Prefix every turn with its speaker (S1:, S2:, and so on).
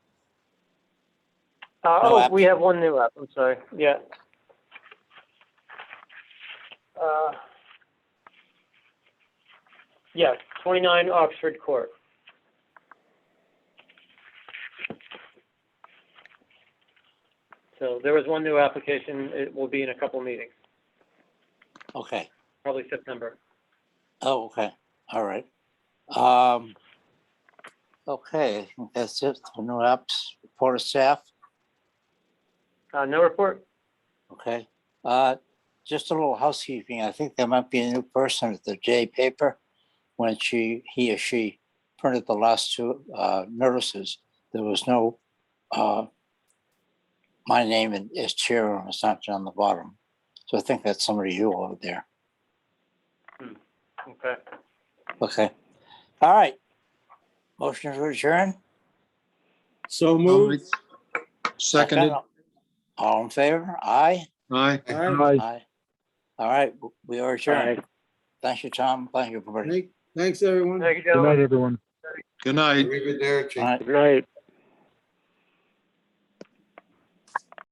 S1: Uh,
S2: No
S1: oh,
S2: app.
S1: we have one new app, I'm sorry, yeah. Uh, Yeah, twenty-nine Oxford Court. So there was one new application, it will be in a couple meetings,
S2: Okay.
S1: probably September.
S2: Oh, okay. All right. Um, okay, that's it. for New apps, report of staff.
S1: Uh, no report?
S2: Okay. Uh, just a little housekeeping. I think there might be a new person at the J paper. When she, he or she printed the last two, uh, notices, there was no, uh, my name and- is chair and it's not on the bottom. So I think that's somebody you over there.
S1: Okay.
S2: Okay. All right. Motion to adjourn.
S3: So moved.
S4: Moved. Seconded.
S2: All in favor? Aye?
S4: Aye.
S3: Aye.
S2: Aye. All right, we are adjourned. Thank you, Tom. Thank you, everybody.
S3: Thank- Thanks, everyone.
S1: Thank you,
S5: Good
S1: gentlemen.
S5: night, everyone.
S4: Good night.
S2: All right.
S5: night.